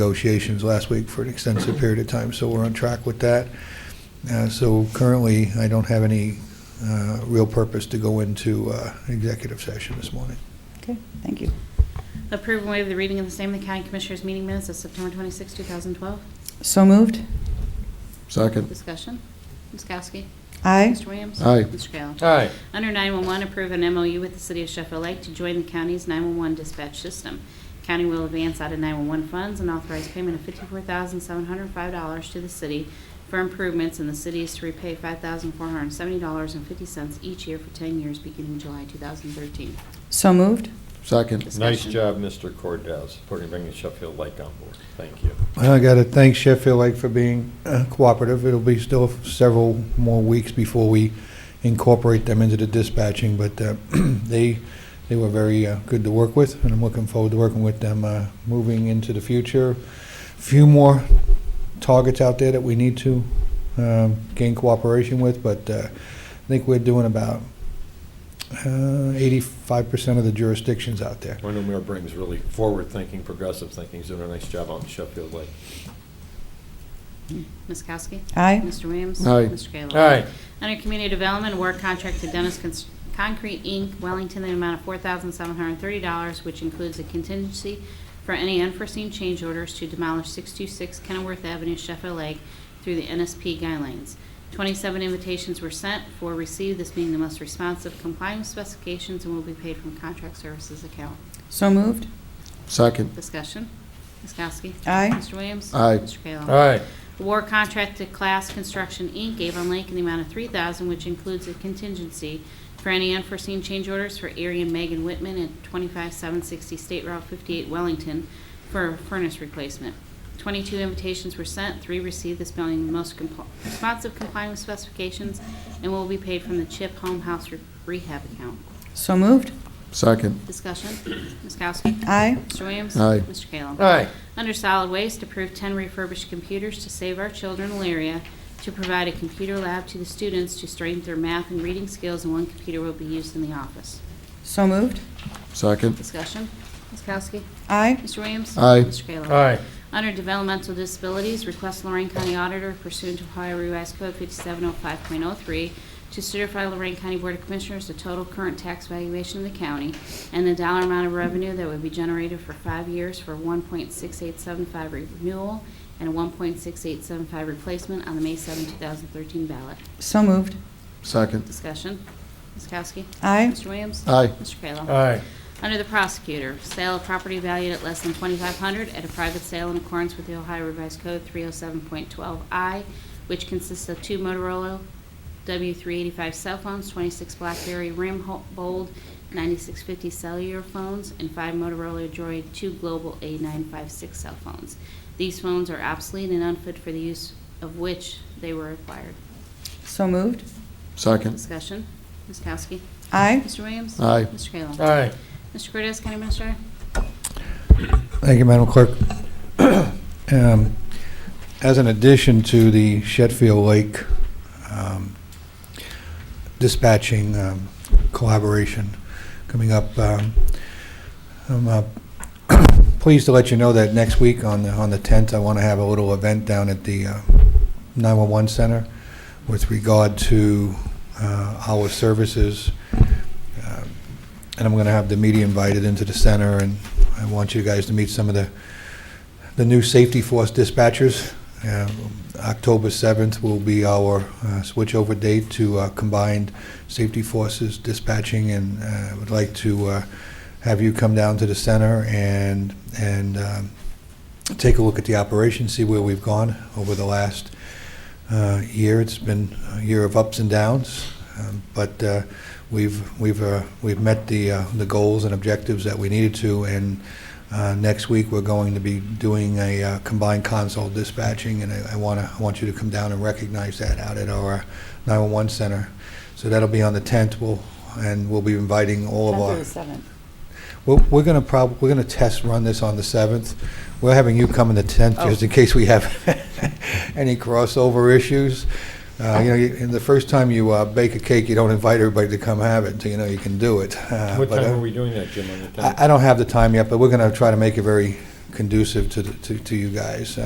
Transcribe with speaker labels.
Speaker 1: negotiations last week for an extensive period of time, so we're on track with that. Uh, So currently, I don't have any uh, real purpose to go into uh, executive session this morning.
Speaker 2: Okay, thank you.
Speaker 3: Approve and waive the reading of the same in the County Commissioners' meeting minutes of September 26, 2012.
Speaker 2: So moved.
Speaker 4: Second.
Speaker 3: Discussion. Ms. Kowski.
Speaker 2: Aye.
Speaker 3: Mr. Williams.
Speaker 4: Aye.
Speaker 3: Mr. Kayla.
Speaker 5: Aye.
Speaker 3: Under 911, approve an MOU with the City of Sheffield Lake to join the county's 911 dispatch system. County will advance out of 911 funds and authorize payment of $54,705 to the city for improvements, and the city is to repay $5,470.50 each year for 10 years beginning July 2013.
Speaker 2: So moved.
Speaker 4: Second.
Speaker 5: Nice
Speaker 3: Discussion.
Speaker 5: job, Mr. Cordez, for bringing Sheffield Lake on board. Thank you.
Speaker 1: I got to thank Sheffield Lake for being uh, cooperative. It'll be still several more weeks before we incorporate them into the dispatching, but uh, they, they were very uh, good to work with, and I'm looking forward to working with them uh, moving into the future. Few more targets out there that we need to um, gain cooperation with, but uh, I think we're doing about uh, 85% of the jurisdictions out there.
Speaker 5: I know Mayor Brings really forward-thinking, progressive thinking. He's doing a nice job out in Sheffield Lake.
Speaker 3: Ms. Kowski.
Speaker 2: Aye.
Speaker 3: Mr. Williams.
Speaker 4: Aye.
Speaker 3: Mr. Kayla.
Speaker 5: Aye.
Speaker 3: Under Community Development, award contract to Dennis Cons- Concrete, Inc., Wellington, in the amount of $4,730, which includes a contingency for any unforeseen change orders to demolish 626 Kenilworth Avenue, Sheffield Lake, through the NSP guidelines. 27 invitations were sent, four received, this being the most responsive complying with specifications and will be paid from contract services account.
Speaker 2: So moved.
Speaker 4: Second.
Speaker 3: Discussion. Ms. Kowski.
Speaker 2: Aye.
Speaker 3: Mr. Williams.
Speaker 4: Aye.
Speaker 3: Mr. Kayla.
Speaker 5: Aye.
Speaker 3: War contract to Class Construction, Inc., Avon Lake, in the amount of 3000 which includes a contingency for any unforeseen change orders for Ari and Megan Whitman at 25760 State Route 58 Wellington for a furnace replacement. 22 invitations were sent, three received, this being the most compl- responsive complying with specifications, and will be paid from the CHIP Home House Re- Rehab Account.
Speaker 2: So moved.
Speaker 4: Second.
Speaker 3: Discussion, Ms. Kowski.
Speaker 2: Aye.
Speaker 3: Mr. Williams.
Speaker 4: Aye.
Speaker 3: Mr. Kayla.
Speaker 5: Aye.
Speaker 3: Under solid waste, approve 10 refurbished computers to save our children Elaria to provide a computer lab to the students to strengthen their math and reading skills, and one computer will be used in the office.
Speaker 2: So moved.
Speaker 4: Second.
Speaker 3: Discussion? Ms. Kowski?
Speaker 2: Aye.
Speaker 3: Mr. Williams?
Speaker 4: Aye.
Speaker 3: Mr. Kayla?
Speaker 5: Aye.
Speaker 3: Under developmental disabilities, request Lorraine County Auditor pursuant to Ohio Revised Code 5705.03 to certify Lorraine County Board of Commissioners the total current tax valuation of the county and the dollar amount of revenue that would be generated for five years for 1.6875 renewal and 1.6875 replacement on the May 7, 2013 ballot.
Speaker 2: So moved.
Speaker 4: Second.
Speaker 3: Discussion. Ms. Kowski?
Speaker 2: Aye.
Speaker 3: Mr. Williams?
Speaker 4: Aye.
Speaker 3: Mr. Kayla?
Speaker 5: Aye.
Speaker 3: Under the prosecutor, sale of property valued at less than 2500 at a private sale in accordance with the Ohio Revised Code 307.12I, which consists of two Motorola W385 cell phones, 26 BlackBerry Rim Ho- Bold 9650 cellular phones, and five Motorola Droid 2 Global A956 cell phones. These phones are obsolete and unfit for the use of which they were acquired.
Speaker 2: So moved.
Speaker 4: Second.
Speaker 3: Discussion, Ms. Kowski.
Speaker 2: Aye.
Speaker 3: Mr. Williams.
Speaker 4: Aye.
Speaker 3: Mr. Kayla.
Speaker 5: Aye.
Speaker 3: Mr. Cortez, County Minister.
Speaker 1: Thank you, Madam Clerk. Um, As an addition to the Sheffield Lake um, dispatching um, collaboration coming up, um, I'm uh, pleased to let you know that next week on the, on the 10th, I want to have a little event down at the uh, 911 Center with regard to uh, our services. Um, And I'm going to have the media invited into the center and I want you guys to meet some of the, the new safety force dispatchers. Uh, October 7th will be our uh, switchover date to uh, combined safety forces dispatching, and uh, I would like to uh, have you come down to the center and, and um, take a look at the operation, see where we've gone over the last uh, year. It's been a year of ups and downs, um, but uh, we've, we've, uh, we've met the, uh, the goals and objectives that we needed to, and uh, Next week, we're going to be doing a uh, combined console dispatching, and I want to, I want you to come down and recognize that out at our 911 center. So that'll be on the 10th, we'll, and we'll be inviting all of our,
Speaker 2: seventh.
Speaker 1: We're- we're going to prob, we're going to test run this on the 7th. We're having you come on the 10th, just in case we have any crossover issues. Uh, You know, you- and the first time you uh, bake a cake, you don't invite everybody to come have it, so you know you can do it. Uh,
Speaker 5: What
Speaker 1: but,
Speaker 5: time
Speaker 1: uh,
Speaker 5: are we doing that, Jim, on the 10th?
Speaker 1: I I don't have the time yet, but we're going to try to make it very conducive to, the- to to you guys.